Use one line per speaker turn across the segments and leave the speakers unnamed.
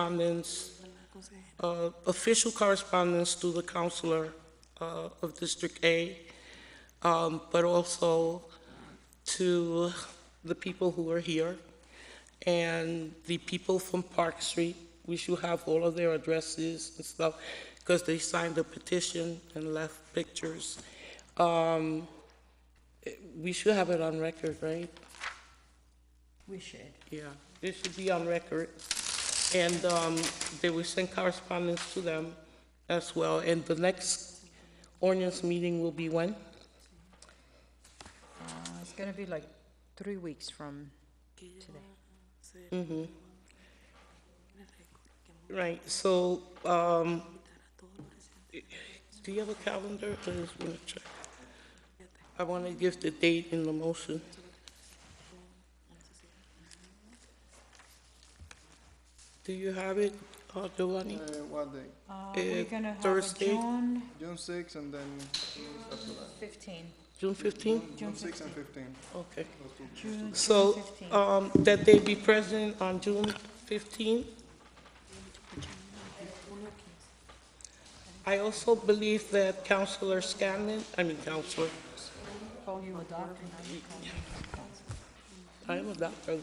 correspondence, uh, official correspondence through the counselor uh, of District A, um, but also to the people who are here and the people from Park Street. We should have all of their addresses and stuff because they signed the petition and left pictures. Um, eh, We should have it on record, right?
We should.
Yeah, this should be on record. And um, they will send correspondence to them as well. And the next ordinance meeting will be when?
Uh, It's gonna be like three weeks from today.
Right, so, um, do you have a calendar? I just want to check. I want to give the date in the motion. Do you have it, uh, Giovanni?
Uh, what day?
Uh,
Eh,
We're gonna have a
Thursday?
June
June 6 and then after that.
15.
June fifteenth?
June
6 and 15.
Okay.
those two.
June June
So,
15.
um, that they be present on June fifteenth. I also believe that Counselor Scanlon, I mean Counselor,
Call you a doctor, now you call me a counsel.
I am a doctor,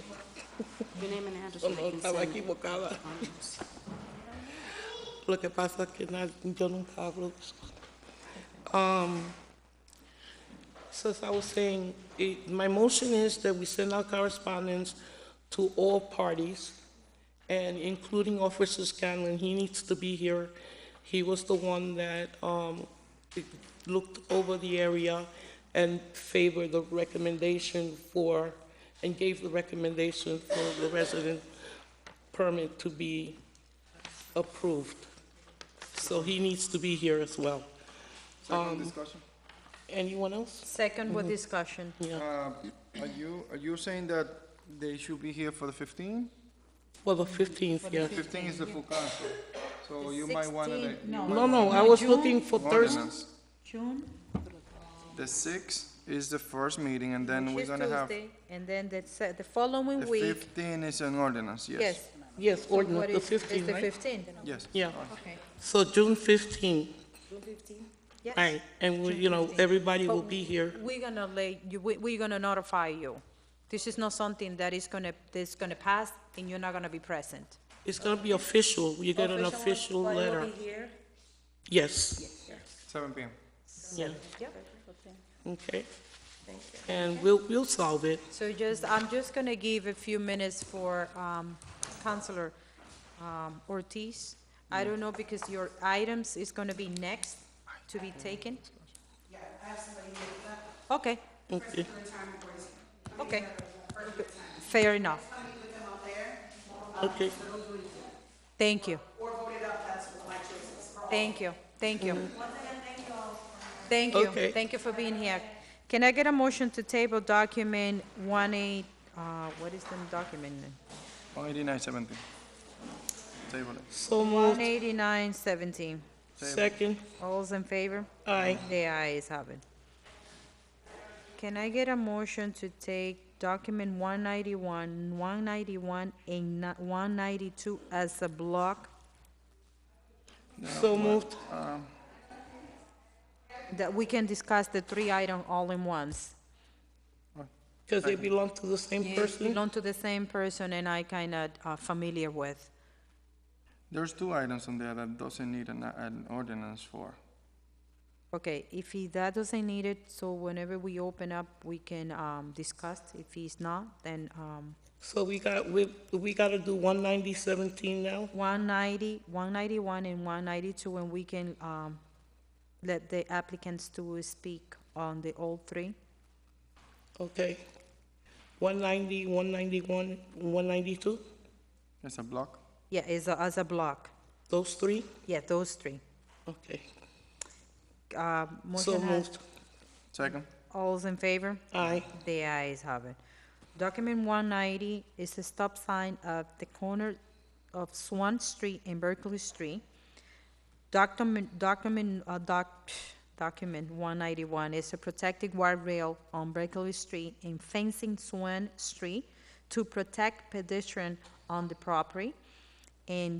Your name and address.
Oh, no, no, estaba equivocada. Lo que pasa es que na- yo nunca hablo de eso. Um, so as I was saying, it, my motion is that we send out correspondence to all parties, and including Officer Scanlon, he needs to be here. He was the one that, um, looked over the area and favored the recommendation for, and gave the recommendation for the resident permit to be approved. So he needs to be here as well. Um,
Second discussion.
Anyone else?
Second
Mm-hmm.
with discussion.
Yeah,
Uh, Are you, are you saying that they should be here for the 15?
well, the 15th, yeah.
15 is the full council, so you might want to.
16 no.
No, no, I was
June?
looking for Thursday.
Ordinance.
June,
The 6 is the first meeting and then we're
which is
gonna have,
Tuesday, and then the, se- the
the
following week,
15 is an ordinance, yes.
yes.
Yes,
So what
ordinance,
is-
the
It's
15th,
the
right?
15.
Yes.
Yeah,
Okay.
so June 15th,
Yes.
right, and, we- you know, everybody will be here.
We're gonna lay, you, we, we're gonna notify you. This is not something that is gonna, that's gonna pass and you're not gonna be present.
It's gonna be official, you get an official letter. Yes,
7 PM.
yeah,
Yep.
okay. And we'll, we'll solve it.
So just, I'm just gonna give a few minutes for, um, Counselor, um, Ortiz. I don't know, because your items is gonna be next to be taken. Yeah, I have somebody
Okay,
Okay, okay. Fair enough.
okay,
Thank you. Thank you, thank you. Thank you,
Okay.
thank you for being here. Can I get a motion to table document one eight, uh, what is the document?
189, 17. Table it.
so
One
moved,
eighty-nine seventeen.
second,
All's in favor?
aye,
The ayes have it. Can I get a motion to take document one ninety-one, one ninety-one, and one ninety-two as a block?
so moved,
That we can discuss the three item all in once?
because they belong to the same person.
belong to the same person and I kind of are familiar with.
There's two items on there that doesn't need an, an ordinance for.
Okay, if he, that doesn't need it, so whenever we open up, we can, um, discuss. If he's not, then, um,
So we got, we, we gotta do one ninety seventeen now?
one ninety, one ninety-one and one ninety-two, and we can, um, let the applicants to speak on the all three.
Okay. 190, 191, 192,
It's a block.
Yeah, as a, as a block.
those three?
Yeah, those three.
Okay.
Uh,
So
motion has,
moved.
Second.
all's in favor?
Aye.
The ayes have it. Document 190 is a stop sign at the corner of Swan Street and Berkeley Street. Document, document, uh, doc, document 191 is a protected guard rail on Berkeley Street and fencing Swan Street to protect pedestrian on the property. and